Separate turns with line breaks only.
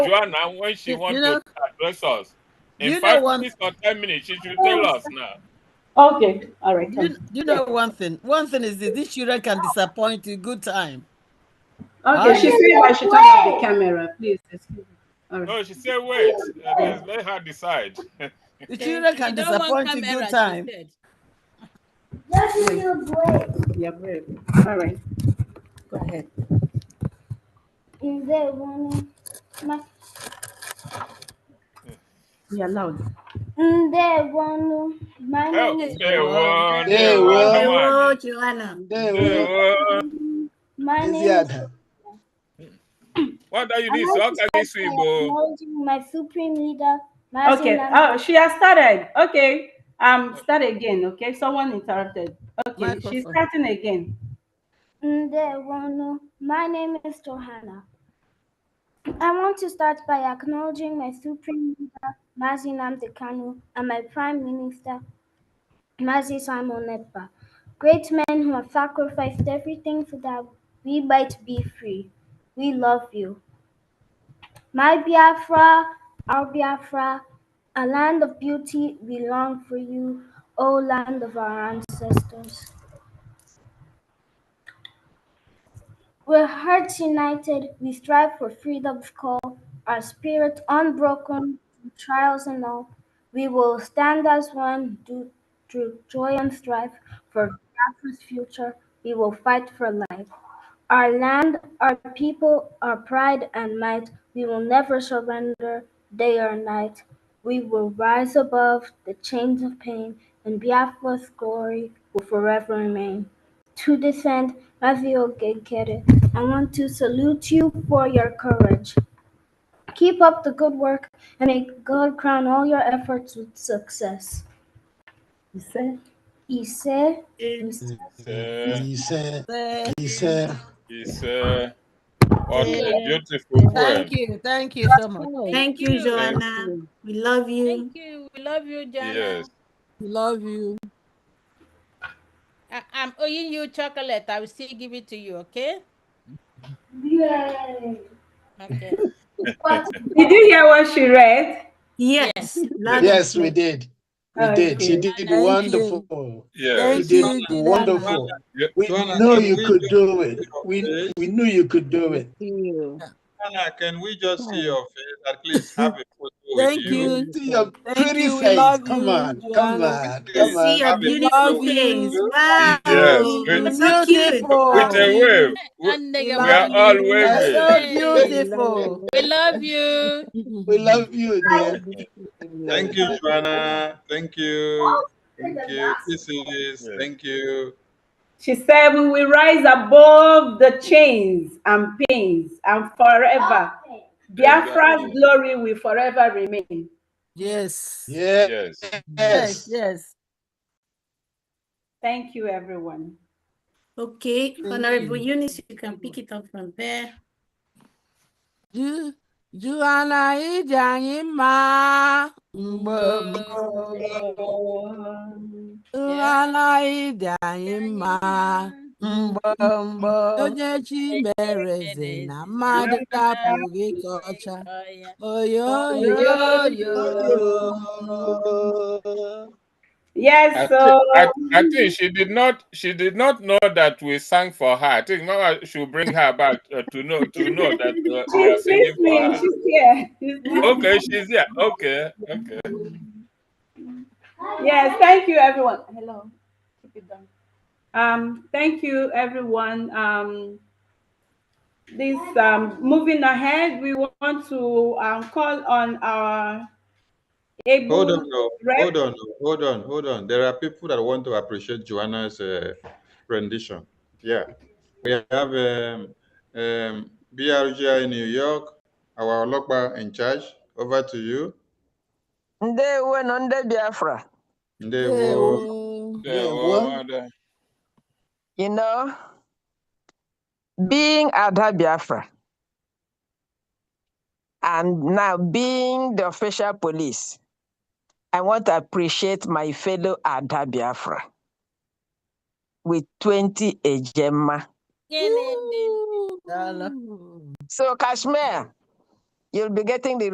Joanna, when she
Oh, You-
wants
you know-
to address us,
you
in
know
five
one-
minutes or ten minutes, she should tell us now.
Okay, all right.
You, you know one thing. One thing is that these children can disappoint you good time.
Okay, she said I should turn off the camera, please. Excuse me. All right.
No, she said, wait, uh, let- let her decide.
The children can
You don't want
disappoint you
camera,
good
she
time.
said.
Yeah, brave. All right. Go ahead.
ndebonu
Yeah, loud.
Help,
manyene
they won, they
They
won, they
won.
won,
Oh,
they
Ndewo.
won.
manyene
Eziada.
What are you
I
doing?
like
How
to
can
thank
this be, Igbo?
my supreme leader
Okay, oh, she has started. Okay, um, start again. Okay, someone interrupted. Okay, she's
Microphone.
starting again.
Ndebonu. My name is Johanna. I want to start by acknowledging my Supreme Leader, Mazi Nnamdi Kanu, and my Prime Minister, Mazi Simon Ekpa, great men who have sacrificed everything so that we might be free. We love you. My Biafra, our Biafra, a land of beauty, we long for you, O land of our ancestors. With hearts united, we strive for freedom's call, our spirit unbroken through trials and all. We will stand as one do, through joy and strife for Biafra's future. We will fight for life. Our land, our people, our pride and might, we will never surrender day or night. We will rise above the chains of pain, and Biafra's glory will forever remain to defend Mavio Gekere. I want to salute you for your courage. Keep up the good work and may God crown all your efforts with success.
You said,
Ise,
Uh,
Ise,
Say,
Ise.
It's uh, what a
Yeah.
beautiful poem.
Thank you. Thank you so much.
Thank you, Joanna. We love you.
Thank you. We love you, Jana.
Yes.
We love you.
I, Uh, I'm owing you chocolate. I will still give it to you, okay?
Yay!
Okay.
What
did you hear what she read?
Yes. Love
Yes, we did. We
Okay.
did. You did
you.
wonderful.
Yeah.
You
Thank
did
you.
wonderful.
Yeah.
We
Joanna,
know
can
you
we
could
just-
do it. We we knew you could do it.
you.
Anna, can we just see your face? At least have a photo
Thank
with you.
you.
See your
Thank
pretty
you. We
face.
love
Come
you,
on, come
Joanna.
on,
Yes.
come
See
on.
your
Happy
beautiful
birthday.
face. Wow.
Yes,
You're
with-
so cute.
Beautiful.
With a wave. We,
And nigga,
We
we are
love
all
you.
waving.
So beautiful.
we love you.
We love you, dear.
Thank you, Joanna. Thank you. Thank you. This is,
Yes.
thank you.
She said, We will rise above the chains and pains and forever. Biafra's glory will forever remain.
Yes.
Yes.
Yes.
Yes. Yes.
Thank you, everyone.
Okay,
you.
Honorable Eunice, you can pick it up from there.
Ju- Juana ije anyị mma.
Mgbe
Juana ije anyị mma.
mgbe mgbe
Onye chi mere eze na mmadụ apụghị ka ọcha.
Oh, yeah.
Oyo oyo.
yo yo.
I
Yes,
thi-
so um,
I, I think she did not she did not know that we sang for her. I think Mama should bring her back uh, to know to know that uh, we are
she's
singing for
listening.
her.
She's here. She's listening.
Okay, she's here. Okay, okay.
Yes, thank you, everyone. Hello. Keep it down. Um, thank you, everyone. Um, this um, moving ahead, we want to um, call on our able
Hold on, oh,
rep.
hold on, oh, hold on, hold on. There are people that want to appreciate Joanna's uh, rendition. Yeah. We have um, um, BRGI in New York, our Lokba in charge. Over to you.
Ndewo nọ ndị Biafra.
Ndewo.
Yeah,
Yeah,
well, uh,
You know, being Ada Biafra and now being the official police, I want to appreciate my fellow Ada Biafra with 20 Ejema.
Kelele.
So, Kashmir, You'll be getting the